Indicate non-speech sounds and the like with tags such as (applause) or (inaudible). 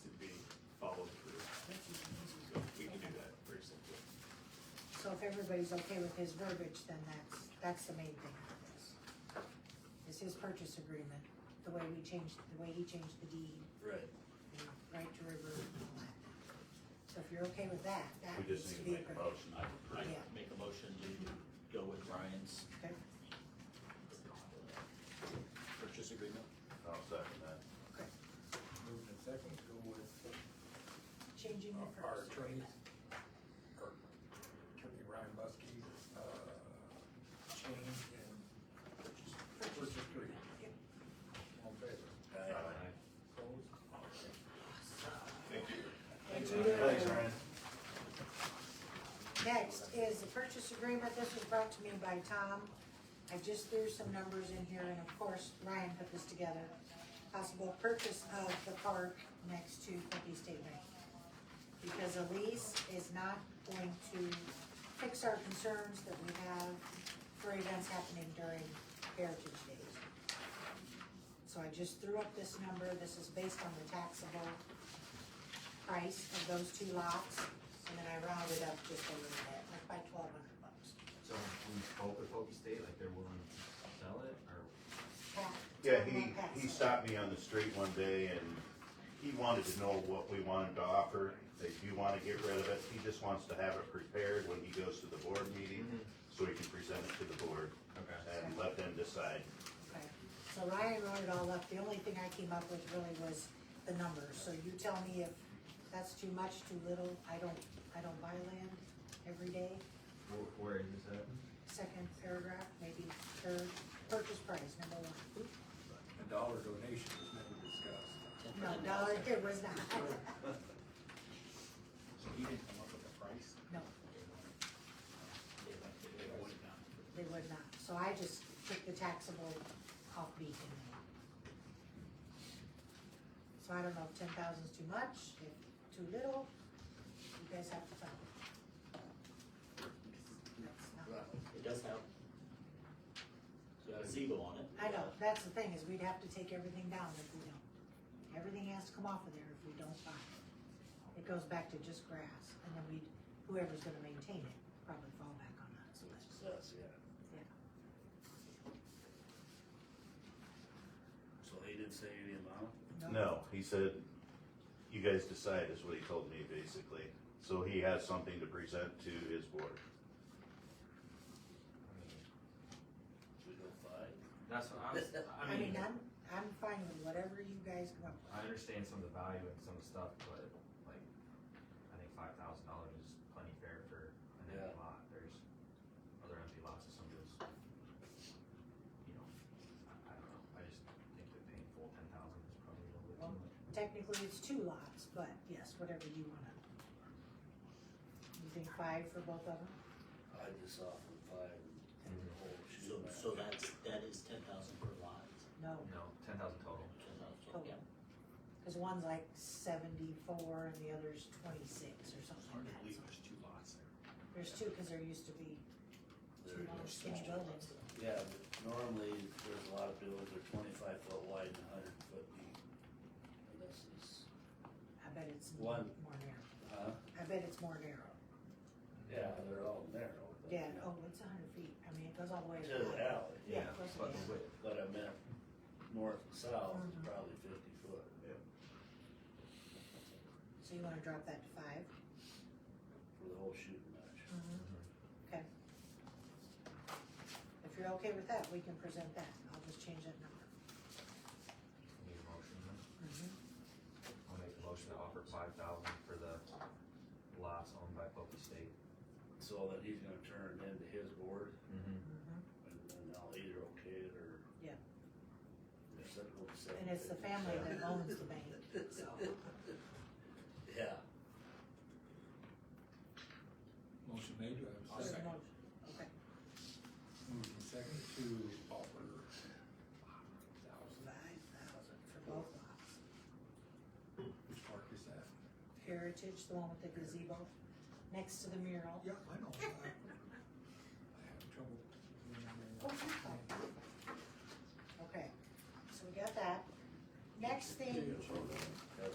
so if everybody's okay with his verbiage, then that's, that's the main thing for this. Is his purchase agreement, the way we changed, the way he changed the deed, Right. the right to revert and all that. So if you're okay with that, that We needs just to be a need to make a agreement. motion. I, I Oh, Yeah. make a motion to go with Brian's Okay, purchase agreement. I'll second that. okay, Moving to second, go with changing the uh, our purchase attorney, agreement. or attorney Ryan Buskey, uh, change in purchase, purchase agreement. Yep. All in favor? Aye. Opposed? Okay. Thank you. Thank you. Next is the purchase agreement, this was brought to me by Tom. I just threw some numbers in here, and of course, Ryan put this together. Possible purchase of the park next to Kentucky State Bank. Because a lease is not going to fix our concerns that we have for events happening during Heritage Days. So I just threw up this number, this is based on the taxable price of those two lots, and then I rounded up just a little bit, like by twelve hundred bucks. So we spoke with Okie State, like they're willing to sell it, or Pat- Yeah, Tom he, Pat he said, stopped me on the street one day and he wanted to know what we wanted to offer. They do wanna get rid of it, he just wants to have it prepared when he goes to the board meeting, so he can present it to the board. Okay. And let them decide. okay. So Ryan wrote it all up, the only thing I came up with really was the numbers, so you tell me if that's too much, too little, I don't, I don't buy land every day. wh- where is this at? Second paragraph, maybe third, purchase price, number one. A dollar donation was never discussed. No, dollar, it was not, So he didn't come up with a price? no, They went, they would not. they would not, so I just took the taxable off beacon. So I don't know if ten thousand is too much, if too little, you guys have to tell me. That's not- It does have. It's got a Zebo on it. I know, that's the thing, is we'd have to take everything down if we don't. Everything has to come off of there if we don't buy it. It goes back to just grass, and then we'd, whoever's gonna maintain it, probably fall back on us, So it's us, yeah. yeah. So he didn't say any amount? No, he said, you guys decide is what he told me basically. So he has something to present to his board. We go five? That's what (laughs) I was, I I mean, mean, I'm, I'm fine with whatever you guys come up I understand some of the value and some stuff, but like, I think five thousand dollars is plenty fair for an empty Yeah. lot, there's other empty lots of some of those. You know, I, I don't know, I just think that paying full ten thousand is probably a little bit too much. with. Technically, it's two lots, but yes, whatever you wanna. You think five for both of them? I just offered five and the whole So, shoe back. so that's, that is ten thousand per lot. No, No, ten thousand Oh, total. $10,000, total. yeah. Cause one's like seventy-four and the other's twenty-six or something Hard to like believe that. there's two lots there. There's two, cause there used to be There two it long is. skinny buildings. Yeah, but normally there's a lot of buildings that are twenty-five foot wide and hundred foot deep. And this is, I bet it's more One. narrow. huh? I bet it's more narrow. Yeah, they're all narrow. but- Yeah, oh, it's a hundred feet. I mean, it goes all the way. To the around. alley, Yeah, of course But it is. with, but I meant north and south, Mhm. probably fifty foot. So you wanna drop that to 5 For the whole shooting match. Mm-hmm. Mm-hmm. Okay. If you're okay with that, we can present that. I'll just change that number. need a motion then? Mm-hmm. I'll make a motion to offer five thousand for the lots owned by Pope State. So that he's gonna turn it into his board Mm-hmm. Mhm. and then I'll either okay it or. Yeah. Or set it over And it's the 750. family that owns the bank, so. (laughs) Yeah. Motion made, do I have a there's second? no- Okay, Moving to second to offer thousand, five thousand for both lots. which park is that? Heritage, the one with the gazebo, next to the mural. Yeah, I know. I I have trouble. remembering Oh, what that's it's fine. called. Okay, so we got that. Next thing